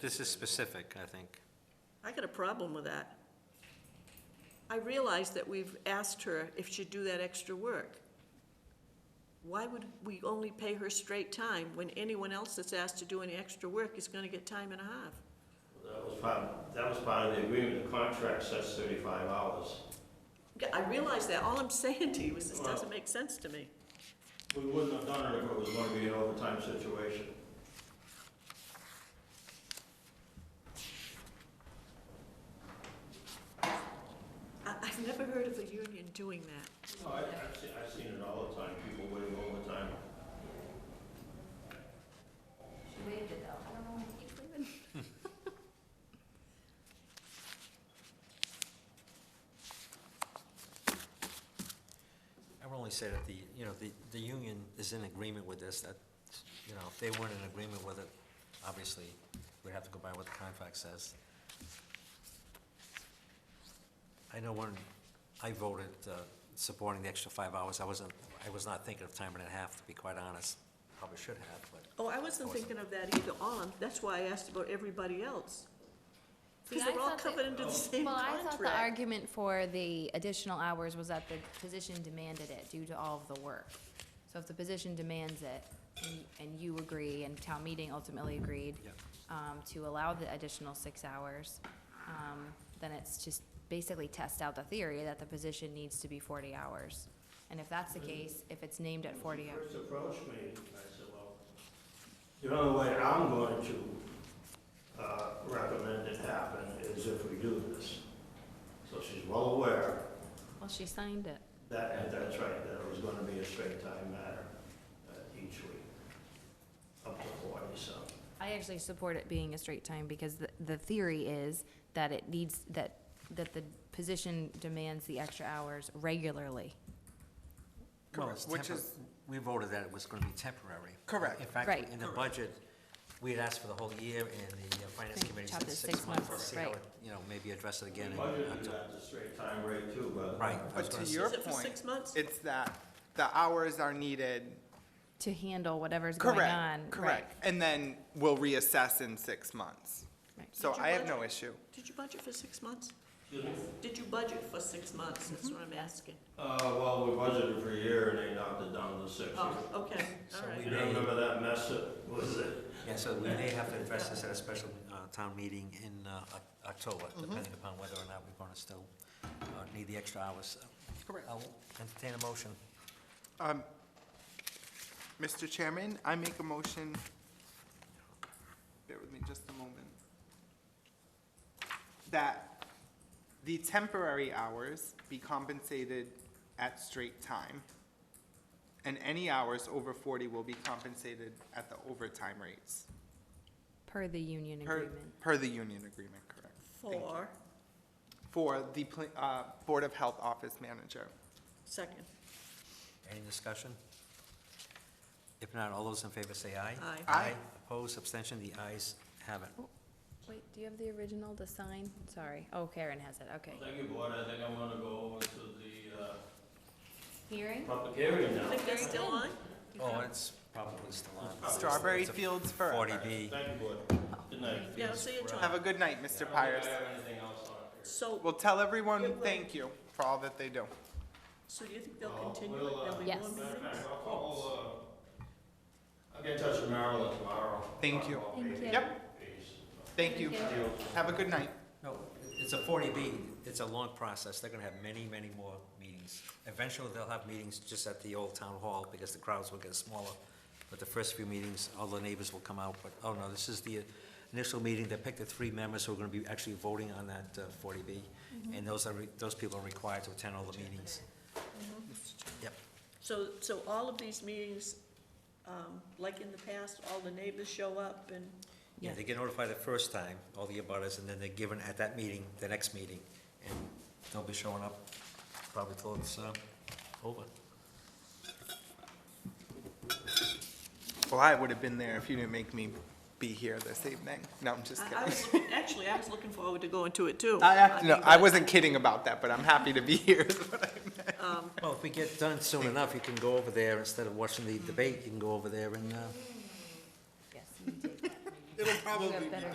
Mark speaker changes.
Speaker 1: This is specific, I think.
Speaker 2: I got a problem with that. I realize that we've asked her if she'd do that extra work. Why would we only pay her straight time when anyone else that's asked to do any extra work is gonna get time and a half?
Speaker 3: That was part, that was part of the agreement, the contract says thirty-five hours.
Speaker 2: Yeah, I realize that, all I'm saying to you is this doesn't make sense to me.
Speaker 3: We wouldn't have done it if it was gonna be an overtime situation.
Speaker 2: I, I've never heard of a union doing that.
Speaker 3: No, I, I've seen, I've seen it all the time, people waiting overtime.
Speaker 4: She waved it though, I don't know why he keeps leaving.
Speaker 1: I would only say that the, you know, the, the union is in agreement with this, that, you know, if they weren't in agreement with it, obviously, we'd have to go by what the contract says. I know when I voted uh, supporting the extra five hours, I wasn't, I was not thinking of time and a half, to be quite honest. Probably should have, but
Speaker 2: Oh, I wasn't thinking of that either, all, I'm- that's why I asked about everybody else.
Speaker 4: See,
Speaker 2: Because
Speaker 4: I
Speaker 2: they're all
Speaker 4: thought that- Oh.
Speaker 2: covered under
Speaker 5: Oh.
Speaker 2: the same
Speaker 4: Well, I
Speaker 2: contract.
Speaker 4: thought the argument for the additional hours was that the position demanded it due to all of the work. So if the position demands it, and- and you agree, and town meeting ultimately agreed,
Speaker 1: Yep.
Speaker 4: um, to allow the additional six hours, um, then it's just basically test out the theory that the position needs to be forty hours. And if that's the case, if it's named at forty hours.
Speaker 3: First approached me, I said, well, the only way I'm going to, uh, recommend it happen is if we do this. So she's well aware
Speaker 4: Well, she signed it.
Speaker 3: That, and that's right, that it was gonna be a straight time matter, uh, each week, up to forty, so.
Speaker 4: I actually support it being a straight time because the, the theory is that it needs, that, that the position demands the extra hours regularly.
Speaker 1: Well,
Speaker 5: Correct,
Speaker 1: it's
Speaker 5: which
Speaker 1: tempor-
Speaker 5: is-
Speaker 1: we voted that it was gonna be temporary.
Speaker 5: Correct.
Speaker 1: In fact,
Speaker 4: Right.
Speaker 1: in the budget, we had asked for the whole year, and the uh, finance
Speaker 4: Then
Speaker 1: committee
Speaker 4: chop
Speaker 1: said
Speaker 4: it
Speaker 1: six months, to see how,
Speaker 4: right.
Speaker 1: it- you know, maybe address it again. in
Speaker 3: Budgeted
Speaker 1: October.
Speaker 3: that the straight time rate too, but.
Speaker 1: Right. I was
Speaker 5: But
Speaker 1: gonna
Speaker 5: to
Speaker 1: say-
Speaker 5: your
Speaker 2: Is it for
Speaker 5: point,
Speaker 2: six months?
Speaker 5: it's that the hours are needed.
Speaker 4: To handle whatever's going on.
Speaker 5: Correct,
Speaker 4: right,
Speaker 5: correct. And then we'll reassess in six months.
Speaker 4: right.
Speaker 5: So
Speaker 2: Did you
Speaker 5: I have
Speaker 2: budget?
Speaker 5: no issue.
Speaker 2: Did you budget for six months?
Speaker 3: Excuse me?
Speaker 2: Did you budget for six months? That's what I'm asking.
Speaker 3: Uh, well, we budgeted for a year and they knocked it down to six.
Speaker 2: Oh, okay,
Speaker 1: So
Speaker 2: all right.
Speaker 3: You don't remember that mess that was it?
Speaker 1: Yeah, so we may have to address this at a special uh, town meeting in uh, Oc- October,
Speaker 5: Mm-hmm.
Speaker 1: depending upon whether or not we're gonna still uh, need the extra hours.
Speaker 5: Correct.
Speaker 1: I'll entertain a motion.
Speaker 5: Um, Mr. Chairman, I make a motion. Bear with me just a moment. That the temporary hours be compensated at straight time. And any hours over forty will be compensated at the overtime rates.
Speaker 4: Per the union
Speaker 5: Per,
Speaker 4: agreement.
Speaker 5: per the union agreement, correct? Thank you.
Speaker 2: For,
Speaker 5: For the, pla- uh, Board of Health Office Manager.
Speaker 2: second,
Speaker 1: Any discussion? If not, all those in favor say aye.
Speaker 2: Aye.
Speaker 5: Aye.
Speaker 1: Opposed, abstention, the ayes have it.
Speaker 4: Wait, do you have the original to sign? Sorry. Oh, Karen has it, okay.
Speaker 3: Thank you, board, I think I'm gonna go over to the, uh,
Speaker 4: Hearing?
Speaker 3: public hearing
Speaker 2: I
Speaker 3: now.
Speaker 2: think that's still on?
Speaker 1: Oh, it's probably still on.
Speaker 5: Strawberry
Speaker 1: It's a
Speaker 5: Fields forever.
Speaker 1: Forty B.
Speaker 3: Thank you, board. Good night.
Speaker 2: Yeah, I'll see you, John.
Speaker 5: Have a good night, Mr. Pires.
Speaker 3: I don't think I have anything else on here.
Speaker 2: So,
Speaker 5: Well, tell everyone
Speaker 2: Good
Speaker 5: thank you for all that they do.
Speaker 2: so do you think they'll continue it? There'll be
Speaker 4: Yes.
Speaker 2: more meetings?
Speaker 3: I'll call, uh, I'll get in touch with Marilyn tomorrow.
Speaker 5: Thank you.
Speaker 4: Thank you.
Speaker 5: Yep, thank you.
Speaker 4: Thank
Speaker 5: Have a good night.
Speaker 1: No, it's a forty B, it's a long process, they're gonna have many, many more meetings. Eventually, they'll have meetings just at the old town hall, because the crowds will get smaller. But the first few meetings, all the neighbors will come out, but, oh no, this is the initial meeting, they pick the three members who are gonna be actually voting on that uh, forty B. And those are, re- those people are required to attend all the meetings. Yep,
Speaker 2: So, so all of these meetings, um, like in the past, all the neighbors show up and,
Speaker 1: yeah,
Speaker 4: Yeah.
Speaker 1: they get notified the first time, all the abutters, and then they're given at that meeting, the next meeting. And they'll be showing up probably till it's, uh, over.
Speaker 5: Well, I would have been there if you didn't make me be here this evening. No, I'm just
Speaker 2: I, I
Speaker 5: kidding.
Speaker 2: was, looking- actually, I was looking forward to going to it too.
Speaker 5: I, act- no,
Speaker 2: mean,
Speaker 5: I
Speaker 2: but-
Speaker 5: wasn't kidding about that, but I'm happy to be here.
Speaker 1: Well, if we get done soon enough, you can go over there, instead of watching the debate, you can go over there and, uh,
Speaker 4: Yes, you take that.
Speaker 5: It'll
Speaker 4: You have better